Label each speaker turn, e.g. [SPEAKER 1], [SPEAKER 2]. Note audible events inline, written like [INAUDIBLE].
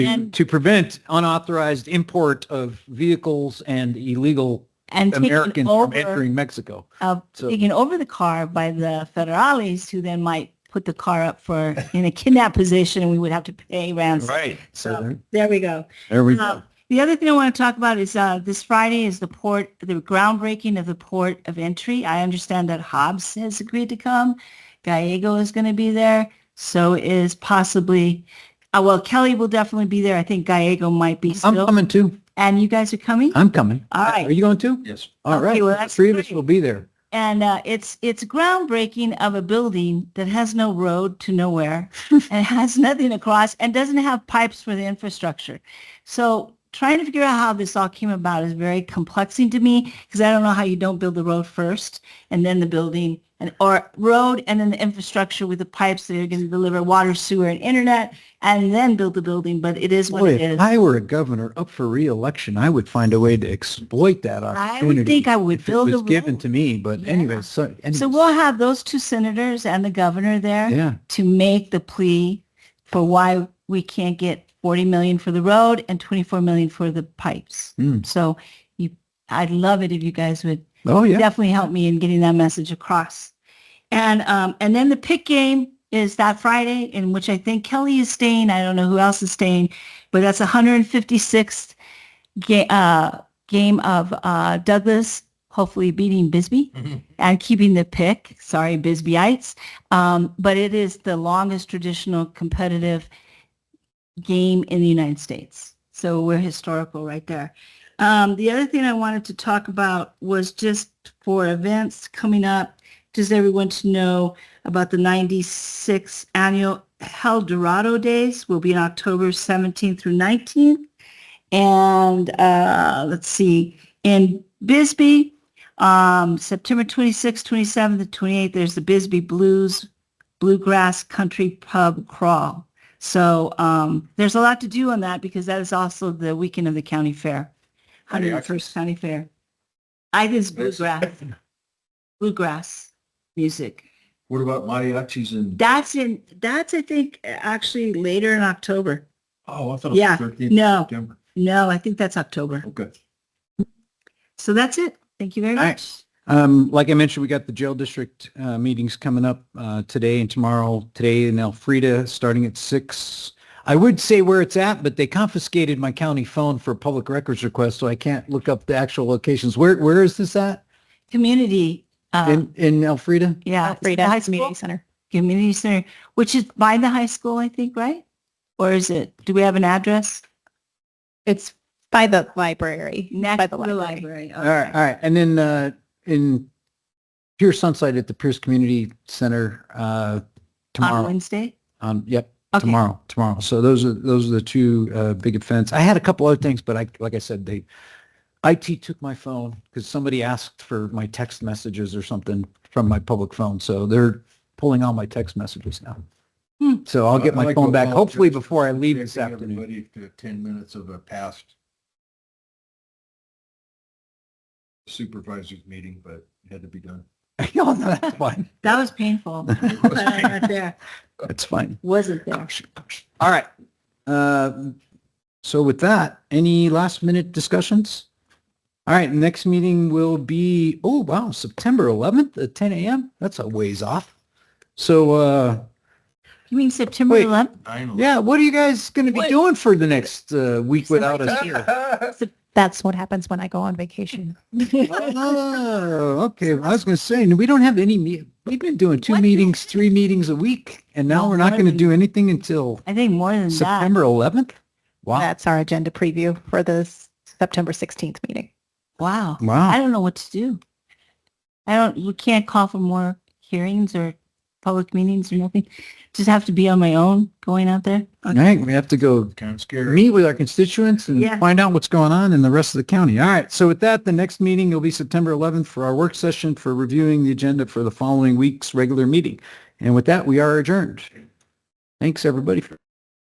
[SPEAKER 1] to, to prevent unauthorized import of vehicles and illegal
[SPEAKER 2] and taken
[SPEAKER 1] Americans from
[SPEAKER 2] over,
[SPEAKER 1] entering Mexico.
[SPEAKER 2] uh,
[SPEAKER 1] So-
[SPEAKER 2] taken over the car by the federales, who then might put the car up for in a kidnap position, and we would have to pay ransom.
[SPEAKER 1] Right. So
[SPEAKER 2] So
[SPEAKER 1] there,
[SPEAKER 2] there we go.
[SPEAKER 1] there we
[SPEAKER 2] Uh,
[SPEAKER 1] go.
[SPEAKER 2] the other thing I want to talk about is uh, this Friday is the port, the groundbreaking of the port of entry. I understand that Hobbs has agreed to come. Gallego is going to be there. So is possibly, uh, well, Kelly will definitely be there. I think Gallego might be
[SPEAKER 1] I'm
[SPEAKER 2] still.
[SPEAKER 1] coming too.
[SPEAKER 2] and you guys are coming?
[SPEAKER 1] I'm coming.
[SPEAKER 2] All right.
[SPEAKER 1] Are you going too?
[SPEAKER 3] Yes.
[SPEAKER 1] All
[SPEAKER 2] Okay,
[SPEAKER 1] right.
[SPEAKER 2] well,
[SPEAKER 1] The
[SPEAKER 2] that's
[SPEAKER 1] Three of us
[SPEAKER 2] great.
[SPEAKER 1] will be there.
[SPEAKER 2] and uh, it's it's groundbreaking of a building that has no road to
[SPEAKER 1] [LAUGHS]
[SPEAKER 2] nowhere and has nothing across and doesn't have pipes for the infrastructure. So trying to figure out how this all came about is very complexing to me because I don't know how you don't build the road first and then the building and or road and then the infrastructure with the pipes that are going to deliver water, sewer, and internet, and then build the building. But it is what
[SPEAKER 1] Boy,
[SPEAKER 2] it
[SPEAKER 1] if
[SPEAKER 2] is.
[SPEAKER 1] I were a governor up for reelection, I would find a way to exploit that
[SPEAKER 2] I
[SPEAKER 1] opportunity.
[SPEAKER 2] would think I would
[SPEAKER 1] if it
[SPEAKER 2] build a
[SPEAKER 1] was
[SPEAKER 2] road.
[SPEAKER 1] given to me, but
[SPEAKER 2] Yeah.
[SPEAKER 1] anyway, so,
[SPEAKER 2] so
[SPEAKER 1] anyways,
[SPEAKER 2] we'll have those two senators and the governor there.
[SPEAKER 1] yeah.
[SPEAKER 2] to make the plea for why we can't get 40 million for the road and 24 million for the pipes.
[SPEAKER 1] Mm.
[SPEAKER 2] So you, I'd love it if you guys would
[SPEAKER 1] Oh, yeah.
[SPEAKER 2] definitely help me in getting that message across. And um, and then the pick game is that Friday, in which I think Kelly is staying. I don't know who else is staying, but that's 156th ga- uh, game of uh, Douglas, hopefully beating Bisbee
[SPEAKER 3] Mhm.
[SPEAKER 2] and keeping the pick. Sorry, Bisbeeites, um, but it is the longest traditional competitive game in the United States. So we're historical right there. Um, the other thing I wanted to talk about was just for events coming up, just everyone to know about the 96 annual El Dorado Days will be on October 17th through 19th. And uh, let's see, in Bisbee, um, September 26th, 27th, and 28th, there's the Bisbee Blues Bluegrass Country Pub Crawl. So um, there's a lot to do on that because that is also the weekend of the county fair, 101st County Fair. I think it's bluegrass, bluegrass music.
[SPEAKER 3] What about mariachis and,
[SPEAKER 2] That's in, that's, I think, actually later in October.
[SPEAKER 3] oh, I thought
[SPEAKER 2] Yeah,
[SPEAKER 3] it was 13th
[SPEAKER 2] no.
[SPEAKER 3] September.
[SPEAKER 2] No, I think that's October.
[SPEAKER 3] Okay.
[SPEAKER 2] So that's it. Thank you very
[SPEAKER 1] All right.
[SPEAKER 2] much.
[SPEAKER 1] Um, like I mentioned, we got the jail district uh, meetings coming up uh, today and tomorrow. Today in Elfrida, starting at six. I would say where it's at, but they confiscated my county phone for a public records request, so I can't look up the actual locations. Where Where is this at?
[SPEAKER 2] Community, uh,
[SPEAKER 1] In in Elfrida?
[SPEAKER 2] yeah.
[SPEAKER 4] Alfreda
[SPEAKER 2] high school?
[SPEAKER 4] Community Center.
[SPEAKER 2] Community Center, which is by the high school, I think, right? Or is it, do we have an address?
[SPEAKER 4] It's by the library.
[SPEAKER 2] Next
[SPEAKER 4] by
[SPEAKER 2] to the library.
[SPEAKER 1] All right,
[SPEAKER 2] okay.
[SPEAKER 1] all right. And then uh, in Pierce Sunside at the Pierce Community Center uh,
[SPEAKER 2] On
[SPEAKER 1] tomorrow.
[SPEAKER 2] Wednesday?
[SPEAKER 1] Um, yep.
[SPEAKER 2] Okay.
[SPEAKER 1] tomorrow tomorrow so those are those are the two uh, big events i had a couple other things but i like i said they it took my phone because somebody asked for my text messages or something from my public phone so they're pulling all my text messages now
[SPEAKER 2] Hmm.
[SPEAKER 1] so i'll get
[SPEAKER 3] I'd
[SPEAKER 1] my
[SPEAKER 3] like to
[SPEAKER 1] phone back
[SPEAKER 3] apologize
[SPEAKER 1] hopefully
[SPEAKER 3] for
[SPEAKER 1] before i leave
[SPEAKER 3] subjecting
[SPEAKER 1] this afternoon
[SPEAKER 3] Everybody to 10 minutes of a past supervisor's meeting, but it had to be done.
[SPEAKER 1] oh, [LAUGHS] no, that's fine
[SPEAKER 2] That
[SPEAKER 1] [LAUGHS]
[SPEAKER 2] was painful. But [LAUGHS] I'm not there.
[SPEAKER 1] that's fine
[SPEAKER 2] Wasn't there.
[SPEAKER 1] all right uh, so with that any last minute discussions all right next meeting will be oh wow september 11th at 10 a.m that's a ways off so uh
[SPEAKER 2] You mean September
[SPEAKER 1] Wait.
[SPEAKER 2] 11th?
[SPEAKER 3] Nine
[SPEAKER 1] yeah what are you guys going to be
[SPEAKER 2] What-
[SPEAKER 1] doing for the next uh, week without us
[SPEAKER 2] [LAUGHS]
[SPEAKER 1] here
[SPEAKER 3] eleven.
[SPEAKER 4] That's what happens when I go on vacation.
[SPEAKER 1] oh, okay well, i was going to say we don't have any me- we've been doing two
[SPEAKER 2] What?
[SPEAKER 1] meetings three meetings a week and now
[SPEAKER 2] No,
[SPEAKER 1] we're not
[SPEAKER 2] more
[SPEAKER 1] going to
[SPEAKER 2] than-
[SPEAKER 1] do anything until
[SPEAKER 2] I think more than that.
[SPEAKER 1] september 11th wow
[SPEAKER 4] That's our agenda preview for the s- September 16th meeting.
[SPEAKER 2] Wow. I
[SPEAKER 1] wow
[SPEAKER 2] don't know what to do. I don't, we can't call for more hearings or public meetings or nothing. Just have to be on my own going out there.
[SPEAKER 1] all right we have to go
[SPEAKER 3] Kind of scary.
[SPEAKER 1] meet with our constituents and
[SPEAKER 2] Yeah.
[SPEAKER 1] find out what's going on in the rest of the county. All right. So with that, the next meeting will be September 11th for our work session for reviewing the agenda for the following week's regular meeting. And with that, we are adjourned. Thanks, everybody. for-